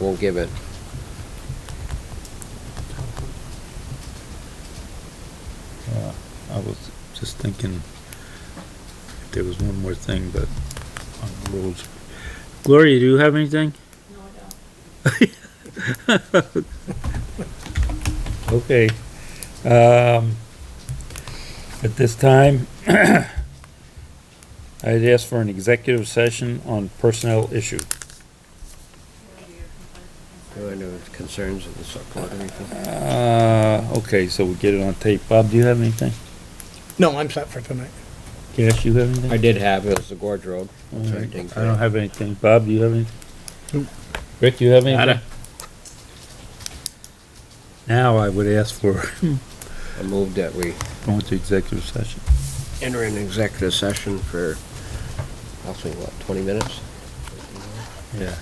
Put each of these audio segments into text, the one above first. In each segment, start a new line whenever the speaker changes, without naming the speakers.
won't give it.
Uh, I was just thinking if there was one more thing, but on the rules. Gloria, do you have anything?
No, I don't.
Okay. Um, at this time, I'd ask for an executive session on personnel issue.
Do I know concerns of the select board or anything?
Uh, okay, so we get it on tape. Bob, do you have anything?
No, I'm set for tonight.
Cash, you have anything?
I did have, it was the Gorge Road.
All
That's what
right.
did
I don't have anything. Bob, do you have anything? Rick, do you have anything? Now I would ask for
I moved that we
going to executive session.
enter an executive session for roughly, what, 20 minutes?
Yeah.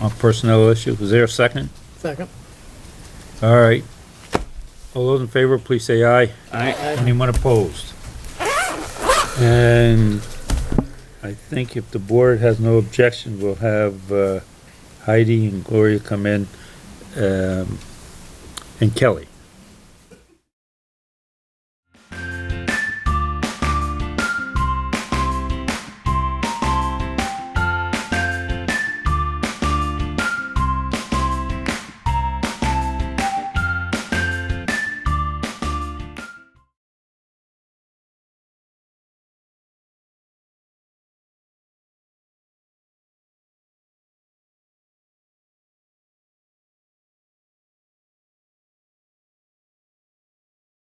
On personnel issue, was there a second?
Second.
All right. All those in favor, please say aye.
Aye.
Anyone opposed? And I think if the board has no objection, we'll have uh, Heidi and Gloria come in, um, and Kelly.